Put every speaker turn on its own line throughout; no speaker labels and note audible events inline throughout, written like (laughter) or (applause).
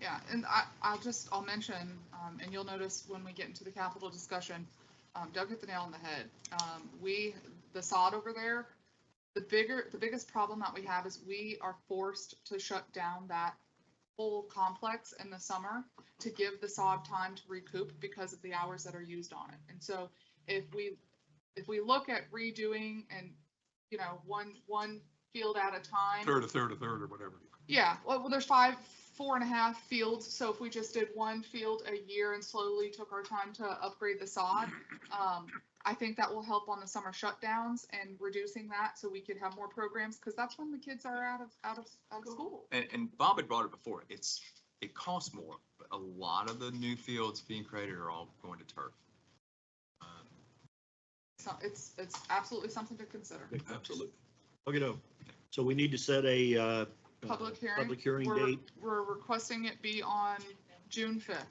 Yeah, and I, I'll just, I'll mention, um, and you'll notice when we get into the capital discussion, um, Doug hit the nail on the head. Um, we, the sod over there, the bigger, the biggest problem that we have is we are forced to shut down that whole complex in the summer to give the sod time to recoup because of the hours that are used on it. And so if we, if we look at redoing and, you know, one, one field at a time.
Third, a third, a third, or whatever.
Yeah, well, well, there's five, four and a half fields, so if we just did one field a year and slowly took our time to upgrade the sod, um, I think that will help on the summer shutdowns and reducing that so we could have more programs, because that's when the kids are out of, out of, out of school.
And, and Bob had brought it before, it's, it costs more, but a lot of the new fields being created are all going to turf. Um,
So it's, it's absolutely something to consider.
Absolutely.
Okay, no. So we need to set a, uh.
Public
uh,
hearing.
Public hearing
We're,
date,
we're requesting it be on June fifth,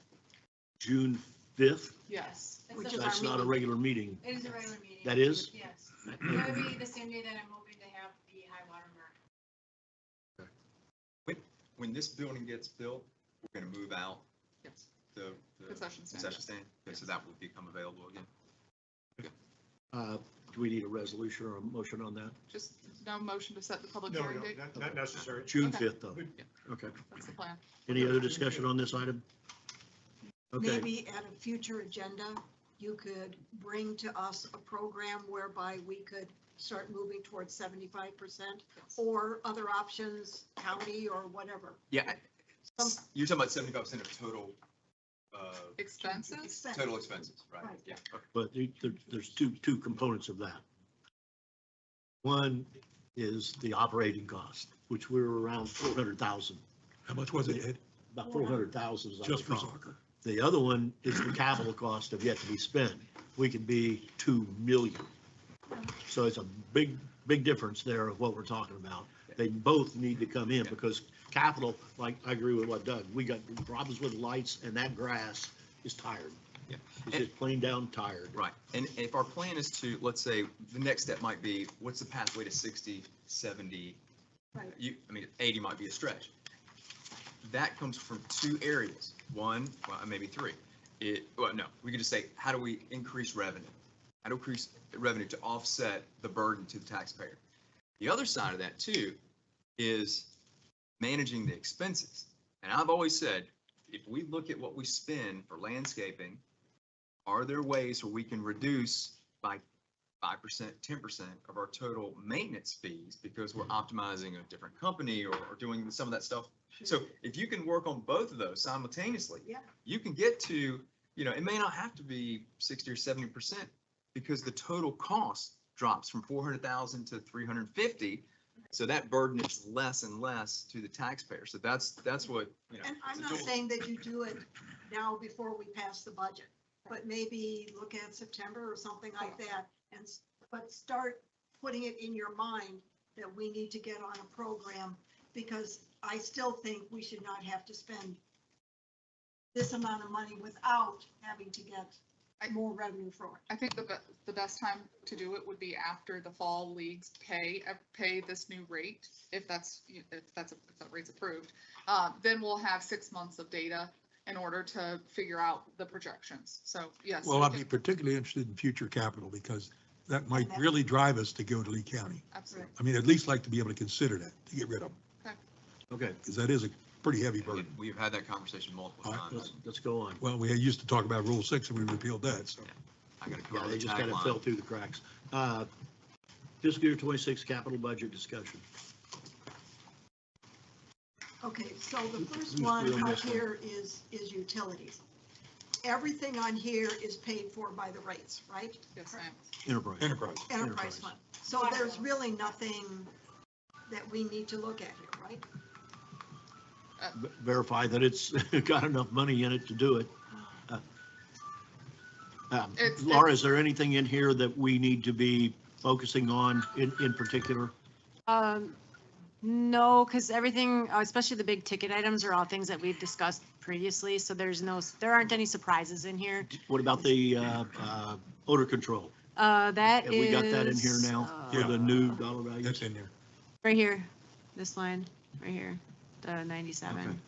June fifth.
yes.
That's
Which
the
is
That's
our
not a
meeting.
regular meeting.
It is a regular meeting.
That is?
Yes. That would be the same day that I'm hoping to have the high water mark.
When this building gets built, we're gonna move out
Yes.
the, the
Concession stand.
Uh, concession stand, okay, so that will become available again.
Uh, do we need a resolution or a motion on that?
Just no motion to set the public
No,
hearing
no,
date,
not- not necessary.
June
Okay.
fifth, though.
Yeah.
Okay.
that's the plan.
Any other discussion on this item? Okay,
Maybe at a future agenda, you could bring to us a program whereby we could start moving towards seventy-five percent or other options, county or whatever.
Yeah. I-
Some-
You're talking about seventy-five percent of total, uh,
Expenses?
Expense.
total expenses, right?
Right.
Yeah. okay.
but the- there- there's two, two components of that. One is the operating cost, which we're around four hundred thousand,
How much was it, Ed?
about four hundred thousand is. our
Just for
cost.
soccer?
The other one is the capital cost of yet to be spent. We could be 2 million. So it's a big, big difference there of what we're talking about. They both need to come in
Yeah.
because capital, like, I agree with what Doug, we got problems with lights and that grass is tired.
Yeah.
It's just plain down tired.
Right, and if our plan is to, let's say, the next step might be, what's the pathway to 60, 70?
Right.
You, I mean, 80 might be a stretch. That comes from two areas, one, well, maybe three. It, well, no, we could just say, how do we increase revenue? How do we increase revenue to offset the burden to the taxpayer? The other side of that too is managing the expenses. And I've always said, if we look at what we spend for landscaping are there ways where we can reduce by five percent, ten percent of our total maintenance fees because we're
Mm-hmm.
optimizing a different company or, or doing some of that stuff? So if you can work on both of those simultaneously.
Mm-hmm. Yeah.
You can get to, you know, it may not have to be sixty or seventy percent because the total cost drops from four hundred thousand to three hundred and fifty.
Mm-hmm.
So that burden is less and less to the taxpayer. So that's, that's what, you know.
Mm-hmm. And
it's
I'm
a
not
dual-
saying that you do it now before we pass the budget, but maybe look at September or something like that. And, s- but start putting it in your mind that we need to get on a program because I still think we should not have to spend this amount of money without having to get more revenue for it.
I think the, be- the best time to do it would be after the fall leagues pay, uh, pay this new rate, if that's, if that's, if that rate's approved. Uh, then we'll have six months of data in order to figure out the projections. So, yes.
Well,
we
I'd
can-
be particularly interested in future capital because that might
that-
really drive us to go to Lee County.
Absolutely.
I mean, at least like to be able to consider that, to get rid of them,
Okay,
because that is a pretty heavy burden.
We've had that conversation multiple
All right,
times.
let's, let's go on.
Well, we used to talk about Rule 6 and we repealed that, so.
I gotta come
Yeah,
up
they
with a
just kind of
tagline.
fell through the cracks. Uh, Fiscal year 26 capital budget discussion.
Okay, so the first
Who's doing
one up
this one?
here is, is utilities. Everything on here is paid for by the rates, right?
Yes, ma'am.
Enterprise.
Enterprise.
enterprise
Enterprise.
fund. So there's really nothing that we need to look at here, right?
Ver- verify that it's (laughs) got enough money in it to do it. Uh, um,
It's-
Laura, is there anything in here that we need to be focusing on in, in particular?
Um, no, because everything, uh, especially the big ticket items are all things that we've discussed previously, so there's no, there aren't any surprises in here.
What about the uh, uh, odor control?
Uh, that
Have we got that in here
is,
now for
uh,
the new dollar value?
That's in there.
Right here, this line, right here, the ninety-seven.